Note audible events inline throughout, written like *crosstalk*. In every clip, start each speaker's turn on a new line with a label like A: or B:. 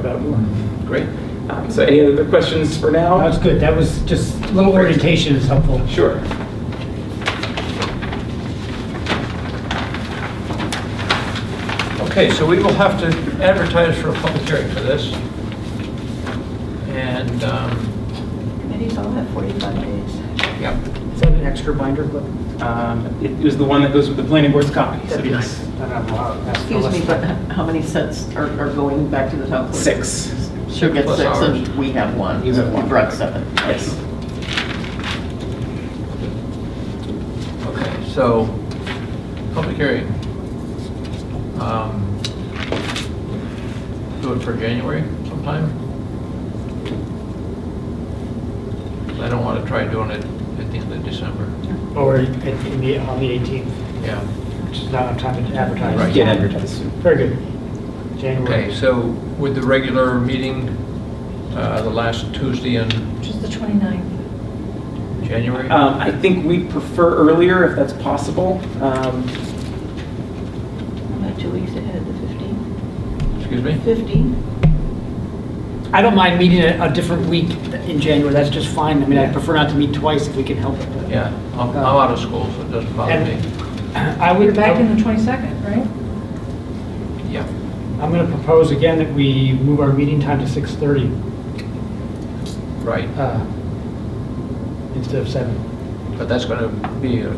A: about more.
B: Great. Um, So any other questions for now?
A: That's good, that was just, a little orientation is helpful.
B: Sure.
C: Okay, so we will have to advertise for a public hearing for this. And, um,
D: Committees all have 45 days.
C: yeah,
E: Is that an extra binder clip?
B: Um, It was the one that goes with the planning board's copy. So
E: That'd be
B: yes.
E: nice. I don't know, I'll ask
D: Excuse me,
E: Phyllis.
D: but how many sets are are going back to the top? clerk?
B: Six.
D: She'll get
C: Plus
D: six
C: ours.
D: and we have one.
B: You have one.
D: brought seven.
B: Yes.
C: okay, so, public hearing. Um, Do it for January sometime? I don't want to try doing it at the end of December.
E: Or at- in the, on the 18th,
C: Yeah,
E: which is not enough time to advertise.
C: Right.
B: Get advertised.
E: Very good.
C: okay,
E: January.
C: so with the regular meeting, uh, the last Tuesday in
F: Which is the 29th.
C: January?
B: Um, I think we prefer earlier if that's possible. Um,
D: About two weeks ahead of the 15th.
C: Excuse me?
D: 15th?
E: I don't mind meeting a a different week in January, that's just fine. I mean, I prefer not to meet twice if we can help it. but-
C: Yeah, I'm I'm out of school, so it doesn't bother me.
E: uh, And- I
F: You're
E: would,
F: back in
E: I'm
F: the 22nd, right?
C: Yeah.
E: going to propose again that we move our meeting time to 6:30
C: Right,
E: uh, instead of 7.
C: but that's going to be a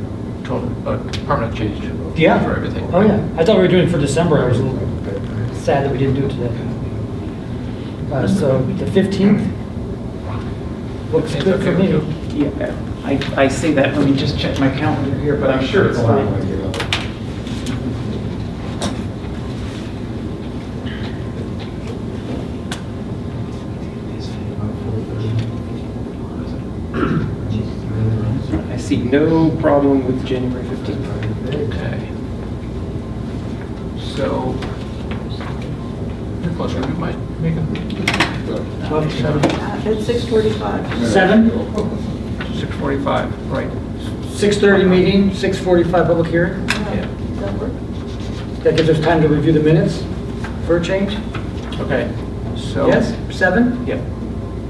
C: total, a permanent change
E: Yeah.
C: for everything.
E: Oh, yeah, I thought we were doing it for December, I was a little sad that we didn't do it today. Uh,
C: Mm-hmm.
E: So the 15th looks
C: It's
E: good for
C: okay
E: me.
C: with you?
B: Yeah, I I say that, let me just check my calendar here, but I'm sure it's fine. I see no problem with January 15th.
C: Okay. So, Nicholas, would you mind making
E: Love to.
C: seven,
D: It's 6:45.
E: Seven,
C: 6:45, right?
E: six-thirty
C: Uh-huh.
E: meeting, six-forty-five public hearing.
C: Yeah.
D: Does that work?
E: That gives us time to review the minutes for a change.
C: Okay, so.
E: Yes, seven.
C: Yep.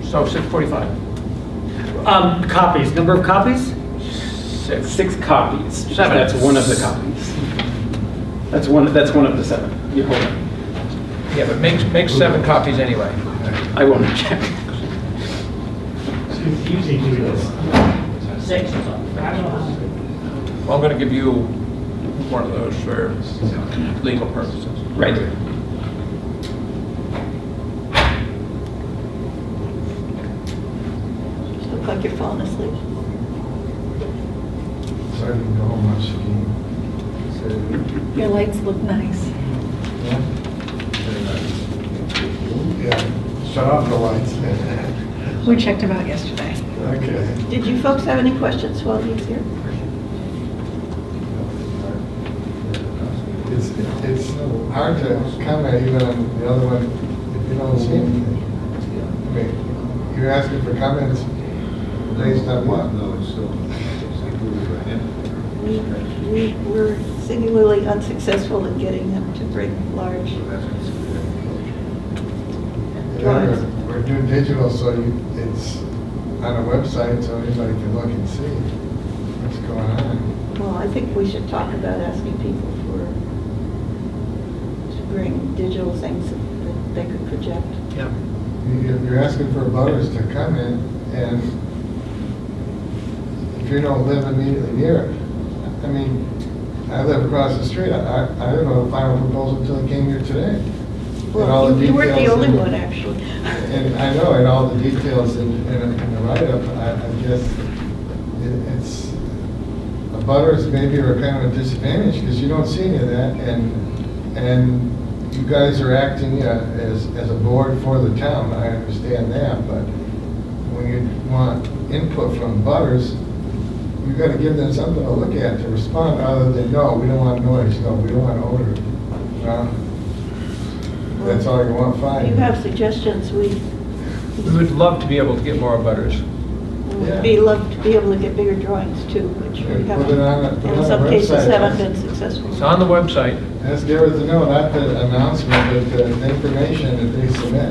C: So 6:45,
E: Um, copies, number of copies?
C: six.
B: Six copies.
C: Seven.
B: That's one of the copies. That's one, that's one of the seven. You hold on.
C: Yeah, but make, make seven copies anyway.
B: I won't check.
C: Well, I'm going to give you one of those for legal purposes.
B: Right.
D: You Look like you're falling asleep.
G: I didn't know how much he
F: Your lights look nice.
G: Yeah, shut off the lights. *laughs*
F: We checked them out yesterday.
G: Okay.
D: Did you folks have any questions while he's here?
G: It's, it's hard to comment even on the other one if you don't see anything. I mean, you're asking for comments based on what? No,
D: We, we were singularly unsuccessful in getting them to bring large. Drawings.
G: We're doing digital, so you- it's on a website, so anybody can look and see what's going on.
D: Well, I think we should talk about asking people for, to bring digital things that they could project.
C: Yeah.
G: You- You're asking for voters to come in, and if you don't live immediately near it, I mean, I live across the street, I, I didn't know the final proposal until I came here today. And all
D: Well,
G: the
D: you weren't the
G: details
D: only
G: and-
D: one, actually.
G: And I know, and all the details in, in in the write-up, I, I guess, it- it's, the butters maybe are kind of a disadvantage, because you don't see any of that, and, and you guys are acting uh, as, as a board for the town, I understand that, but when you want input from butters, you gotta give them something to look at, to respond, other than, no, we don't want noise, no, we don't want odor. Well, That's all you want, fine.
D: You have suggestions, we
C: We would love to be able to get more butters.
D: would be love to be able to get bigger drawings too, which
G: Put
D: we
G: it on a-
D: haven't,
G: put it
D: in
G: on
D: some
G: a
D: cases
G: website.
D: haven't been successful.
C: It's on the website.
G: Ask Garrett to know, not the announcement, but the information that they submit.